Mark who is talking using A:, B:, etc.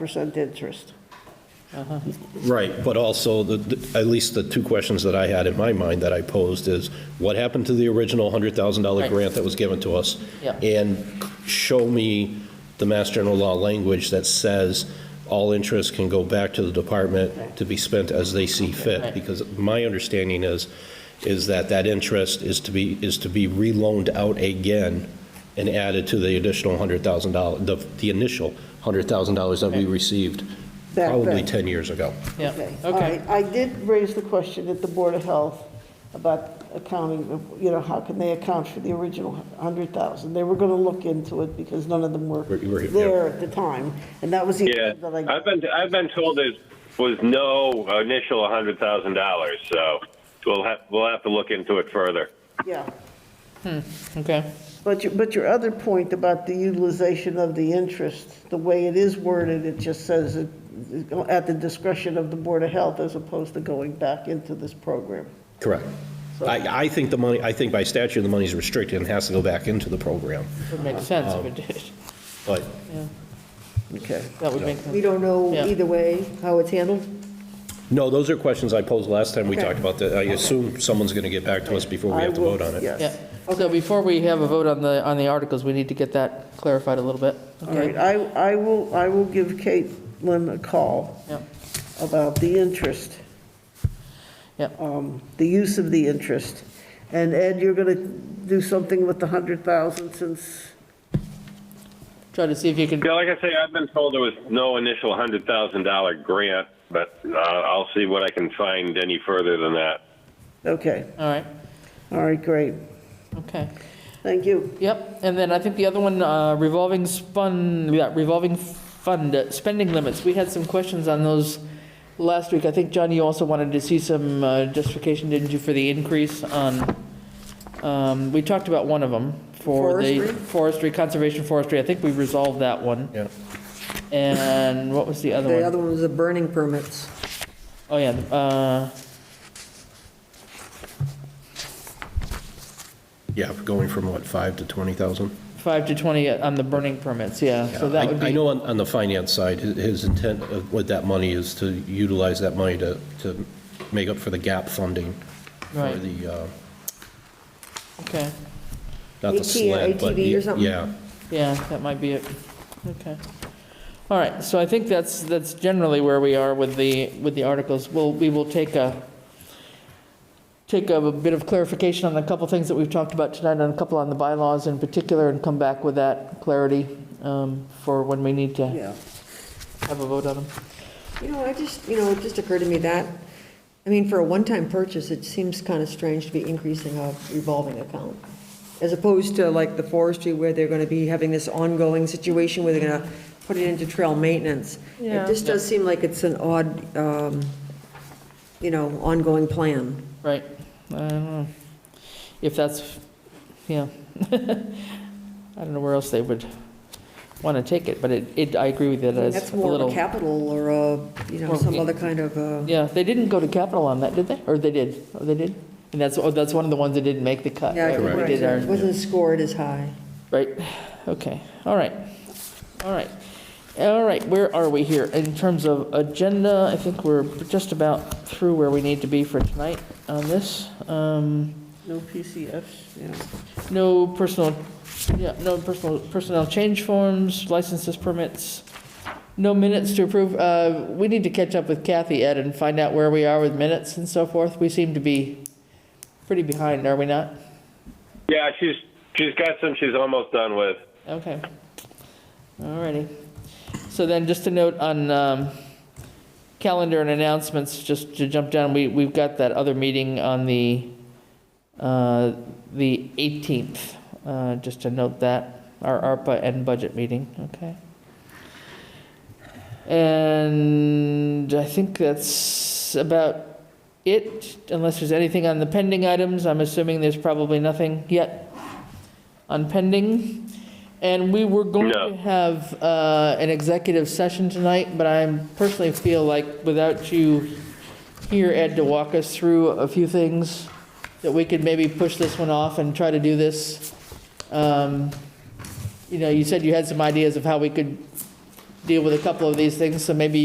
A: percent interest.
B: Right, but also, the- the- at least the two questions that I had in my mind that I posed is, what happened to the original $100,000
C: Right.
B: grant that was given to us?
C: Yep.
B: And show me the Mass General Law language that says all interest can go back to the department to be spent as they see fit.
C: Right.
B: Because my understanding is, is that that interest is to be, is to be reloaned out again and added to the additional $100,000, the the initial $100,000 that we
C: Okay.
B: received
A: Back
B: probably
A: then.
B: 10 years ago.
C: Yeah,
A: All right,
C: okay.
A: I did raise the question at the Board of Health about accounting, of, you know, how can they account for the original 100,000? They were going to look into it because none of them were
B: Were- were- yeah.
A: there at the time, and that was the
D: Yeah,
A: answer that I
D: I've been I've been told there was no initial hundred thousand dollars, so we'll have we'll have to look into it further.
A: Yeah,
C: Okay,
A: but your, but your other point about the utilization of the interest, the way it is worded, it just says it at the discretion of the Board of Health as opposed to going back into this program.
B: Correct. I, I think the money, I think by statute, the money's restricted and has to go back into the program,
C: would make sense if it did.
B: but
C: Yeah,
A: Okay.
C: That would make
A: Um,
E: We
C: sense.
E: don't know
C: Yeah.
E: either way how it's handled?
B: No, those are questions I posed last time we
E: Okay.
B: talked about that. I assume someone's going to get back to us before we
A: I
B: have to
A: will-
B: vote on it.
A: Yes.
C: Yeah, so before we have a vote on the, on the articles, we need to get that clarified a little bit.
A: All right,
C: Okay.
A: I, I will, I will give Caitlin a call
C: Yeah.
A: about the interest.
C: Yep.
A: Um, The use of the interest. And Ed, you're going to do something with the 100,000 since,
C: Try to see if you can,
D: Yeah, like I say, I've been told there was no initial hundred thousand dollar grant, but uh, I'll see what I can find any further than that.
A: okay,
C: all right,
A: all right, great,
C: okay.
A: thank you.
C: Yep, and then I think the other one, uh, revolving spun, yeah, revolving fund, uh, spending limits. We had some questions on those last week. I think, John, you also wanted to see some uh, justification, didn't you, for the increase on, um, we talked about one of them for the
A: Forestry?
C: forestry, conservation forestry. I think we resolved that one.
B: Yeah.
C: And what was the other
E: The
C: one?
E: other one was the burning permits.
C: Oh, yeah, uh,
B: Yeah, going from what, 5 to 20,000?
C: five to 20 on the burning permits, yeah. So
B: I
C: that would be.
B: I know on, on the finance side, hi- his intent of- with that money is to utilize that money to, to make up for the gap funding for
C: Right.
B: the, uh,
C: Okay,
B: not the
E: AT or
B: SLID, but.
E: ATV or
B: the-
E: something?
B: Yeah,
C: yeah, that might be it. Okay. All right, so I think that's, that's generally where we are with the, with the articles. We'll, we will take a, take a bit of clarification on a couple things that we've talked about tonight, and a couple on the bylaws in particular, and come back with that clarity um, for when we need to
A: Yeah.
C: have a vote on them.
E: You know, I just, you know, it just occurred to me that, I mean, for a one-time purchase, it seems kind of strange to be increasing a revolving account, as opposed to like the forestry where they're going to be having this ongoing situation where they're going to put it into trail maintenance. It just does seem like it's an odd, um, you know, ongoing plan.
C: Right, I don't know, if that's, yeah, I don't know where else they would want to take it, but it, it, I agree with it as
E: That's
C: a
E: more of a
C: little.
E: capital or a, you know,
C: Or-
E: some other kind of, uh,
C: Yeah, they didn't go to capital on that, did they? Or they did, oh, they did? And that's, oh, that's one of the ones that didn't make the cut.
E: yeah,
C: right, we
E: correct.
C: did
E: it
C: our-
E: wasn't scored as high.
C: Right, okay, all right, all right. All right, where are we here? In terms of agenda, I think we're just about through where we need to be for tonight on this. Um,
A: No PCFs, yeah.
C: No personal, yeah, no personal, personnel change forms, licenses, permits, no minutes to approve. Uh, We need to catch up with Kathy, Ed, and find out where we are with minutes and so forth. We seem to be pretty behind, are we not?
D: Yeah, she's she's got some she's almost done with.
C: Okay. All righty. So then, just a note on um, calendar and announcements, just to jump down, we, we've got that other meeting on the, uh, the 18th, uh, just to note that, our ARPA and budget meeting, okay? And I think that's about it, unless there's anything on the pending items. I'm assuming there's probably nothing yet on pending. And we were going
D: No.
C: to have uh, an executive session tonight, but I personally feel like without you here, Ed, to walk us through a few things, that we could maybe push this one off and try to do this. Um, You know, you said you had some ideas of how we could deal with a couple of these things, so maybe